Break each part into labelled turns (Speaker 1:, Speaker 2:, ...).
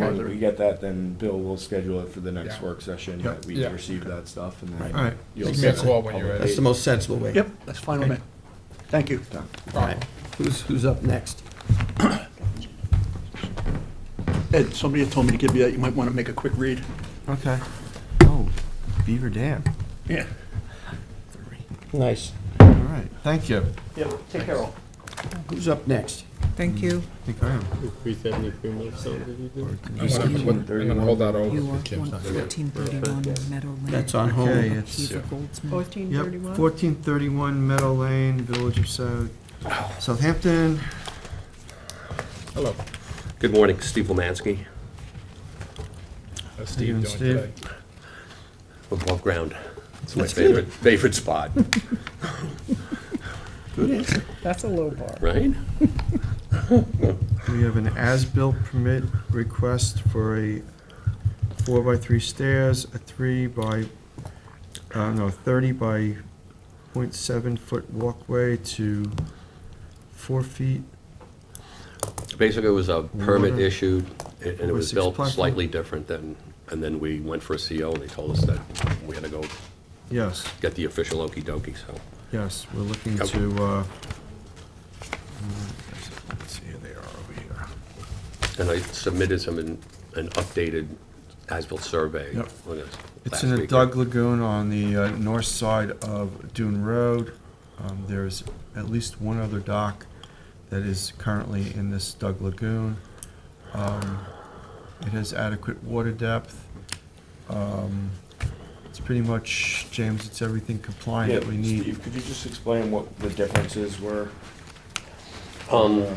Speaker 1: Once we get that, then Bill will schedule it for the next
Speaker 2: Yeah.
Speaker 1: work session,
Speaker 2: Yeah.
Speaker 1: that we
Speaker 2: Yeah.
Speaker 1: receive that stuff, and
Speaker 3: Right.
Speaker 1: then.
Speaker 3: All
Speaker 2: right.
Speaker 1: you'll
Speaker 2: Give me a
Speaker 1: set
Speaker 2: call when you're
Speaker 1: public
Speaker 2: ready.
Speaker 3: That's the most sensible way.
Speaker 4: Yep, that's fine with me.
Speaker 3: Okay.
Speaker 4: Thank you.
Speaker 1: time.
Speaker 3: All right. Who's, who's up next?
Speaker 4: Ed, somebody had told me to give you that, you might want to make a quick read.
Speaker 3: Okay. Oh, Beaver Dam.
Speaker 4: Yeah.
Speaker 3: Nice.
Speaker 2: All right, thank you.
Speaker 4: Yeah, take care all.
Speaker 3: Who's up next?
Speaker 5: Thank you.
Speaker 2: I think I am.
Speaker 6: Three seventy-three Milestone.
Speaker 2: I'm gonna- I'm gonna hold that over
Speaker 5: You
Speaker 2: for
Speaker 5: are
Speaker 2: Kim's. not here.
Speaker 5: 1431 Meadowland.
Speaker 3: That's on
Speaker 2: Okay,
Speaker 3: hold.
Speaker 2: it's,
Speaker 5: Kiefer Goldsmith.
Speaker 7: Fourteen
Speaker 2: yep,
Speaker 7: thirty-one?
Speaker 2: fourteen thirty-one Meadow Lane, Village of South, Southampton. Hello.
Speaker 8: Good morning, Steve Lemansky,
Speaker 2: Steve doing today?
Speaker 8: above ground. It's my
Speaker 3: That's good.
Speaker 8: favorite, favorite spot,
Speaker 3: Good answer.
Speaker 7: That's a low bar.
Speaker 8: right?
Speaker 2: We have an as-built permit request for a four-by-three stairs, a three by, uh, no, thirty by point seven-foot walkway to four feet.
Speaker 8: Basically, it was a permit
Speaker 2: Water.
Speaker 8: issued, and and it
Speaker 2: Over
Speaker 8: was
Speaker 2: six
Speaker 8: built
Speaker 2: platform.
Speaker 8: slightly different than, and then we went for a CO, and they told us that we had to go
Speaker 2: Yes,
Speaker 8: get the official okey-dokey, so.
Speaker 2: yes, we're looking
Speaker 8: Yep.
Speaker 2: to, uh, let's see, they are over here.
Speaker 8: And I submitted some, an an updated as-built survey.
Speaker 2: Yep.
Speaker 8: with us
Speaker 2: It's
Speaker 8: last
Speaker 2: in the
Speaker 8: week.
Speaker 2: Dug Lagoon on the uh, north side of Dune Road. Um, There's at least one other dock that is currently in this Dug Lagoon. Um, It has adequate water depth. Um, It's pretty much, James, it's everything compliant
Speaker 1: Yeah,
Speaker 2: that we need.
Speaker 1: Steve, could you just explain what the differences were?
Speaker 8: Um,
Speaker 1: uh,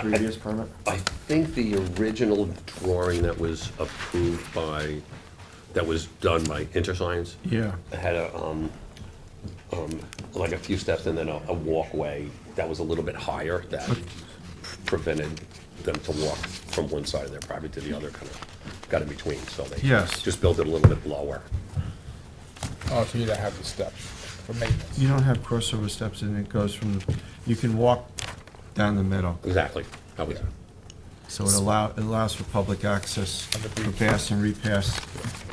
Speaker 1: Previous permit?
Speaker 8: I think the original drawing that was approved by, that was done by InterScience,
Speaker 2: Yeah,
Speaker 8: It had a, um, um, like a few steps and then a, a walkway that was a little bit higher that prevented them to walk from one side of their property to the other, kind of got in between, so they.
Speaker 2: Yes.
Speaker 8: Just built it a little bit lower.
Speaker 9: Oh, so you don't have the steps for maintenance?
Speaker 2: you don't have crossover steps and it goes from, the you can walk down the middle.
Speaker 8: Exactly. That was-
Speaker 2: So it allow, it allows for public access
Speaker 9: And the
Speaker 2: for
Speaker 9: breach.
Speaker 2: pass and repass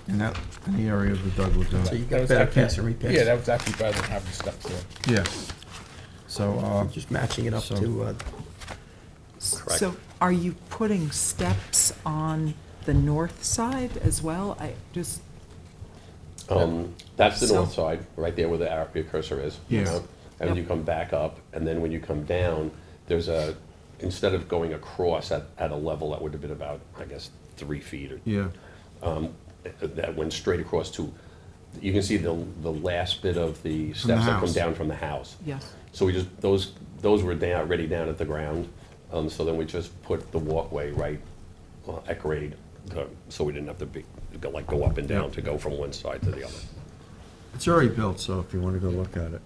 Speaker 2: in that, in the area of the Doug
Speaker 3: So you
Speaker 2: Lagoon.
Speaker 3: got better pass and repass.
Speaker 9: Yeah, that was actually better than having the steps there.
Speaker 2: Yeah. So, uh,
Speaker 3: Just matching it up
Speaker 2: So-
Speaker 3: to, uh,
Speaker 5: So are you putting steps on the north side as well? I just,
Speaker 8: Um, that's the north
Speaker 5: So-
Speaker 8: side, right there where the arrow, your cursor is.
Speaker 2: Yes.
Speaker 8: you know? And when you
Speaker 5: Yep.
Speaker 8: come back up, and then when you come down, there's a, instead of going across at, at a level that would have been about, I guess, three feet or
Speaker 2: yeah,
Speaker 8: that went straight across to, you can see the, the last bit of the steps that come
Speaker 2: house.
Speaker 8: down from the house.
Speaker 5: yes.
Speaker 8: So we just, those, those were down, already down at the ground, um, so then we just put the walkway right uh, at grade, uh, so we didn't have to be, go like, go up and down to go from one side to the other.
Speaker 2: it's already built, so if you wanna go look at it.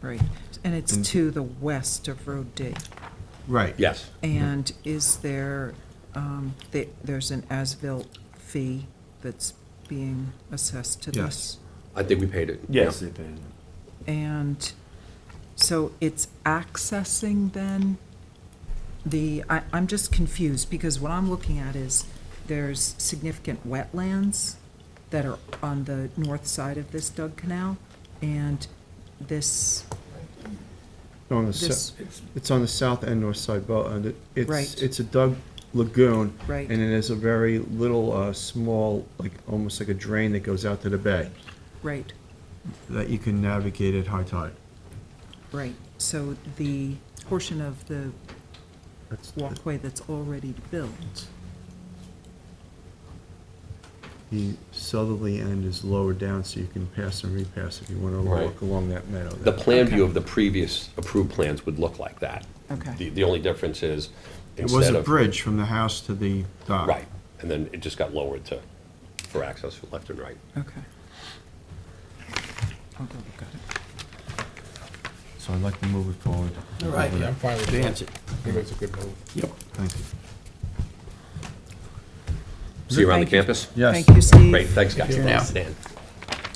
Speaker 5: Right. And it's
Speaker 3: Mm.
Speaker 5: to the west of Road D.
Speaker 2: Right.
Speaker 8: Yes,
Speaker 5: And is there, um, the- there's an as-built fee that's being assessed to this?
Speaker 2: Yes.
Speaker 8: I think we paid it. yeah.
Speaker 1: Yes, they did.
Speaker 5: And so it's accessing then the, I, I'm just confused because what I'm looking at is there's significant wetlands that are on the north side of this Dug Canal and this,
Speaker 2: On the,
Speaker 5: this,
Speaker 2: sou- it's on the south and north side, but, uh, the- it's,
Speaker 5: Right.
Speaker 2: it's a Doug Lagoon.
Speaker 5: Right.
Speaker 2: And it is a very little, uh, small, like, almost like a drain that goes out to the bay
Speaker 5: right,
Speaker 2: that you can navigate at high tide.
Speaker 5: right. So the portion of the
Speaker 2: That's-
Speaker 5: walkway that's already built,
Speaker 2: The southerly end is lower down, so you can pass and repass if you wanna walk
Speaker 8: Right.
Speaker 2: along that meadow.
Speaker 8: The
Speaker 2: there.
Speaker 8: plan view of the previous approved plans would look like that.
Speaker 5: Okay.
Speaker 8: The, the only difference is,
Speaker 2: It was
Speaker 8: instead
Speaker 2: a
Speaker 8: of.
Speaker 2: bridge from the house to the dock.
Speaker 8: Right, and then it just got lowered to, for access left and right.
Speaker 5: okay. I'll go look at it.
Speaker 2: So I'd like to move it forward.
Speaker 3: all right,
Speaker 9: Yeah, I'm fine with that.
Speaker 3: advance it.
Speaker 9: I think it's a good move.
Speaker 3: Yep.
Speaker 2: Thank you.
Speaker 8: See you around the
Speaker 5: Thank you.
Speaker 8: campus?
Speaker 2: Yes.
Speaker 5: Thank you, Steve.
Speaker 8: Great, thanks, guys.
Speaker 3: you. Yeah.
Speaker 8: Dan.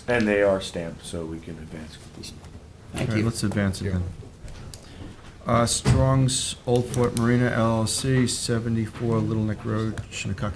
Speaker 1: And they are stamped, so we can advance.
Speaker 2: All
Speaker 3: Thank
Speaker 2: right,
Speaker 3: you.
Speaker 2: let's advance it then. Uh, Strong's Old Fort Marina LLC, 74 Little Neck Road, Shinnecock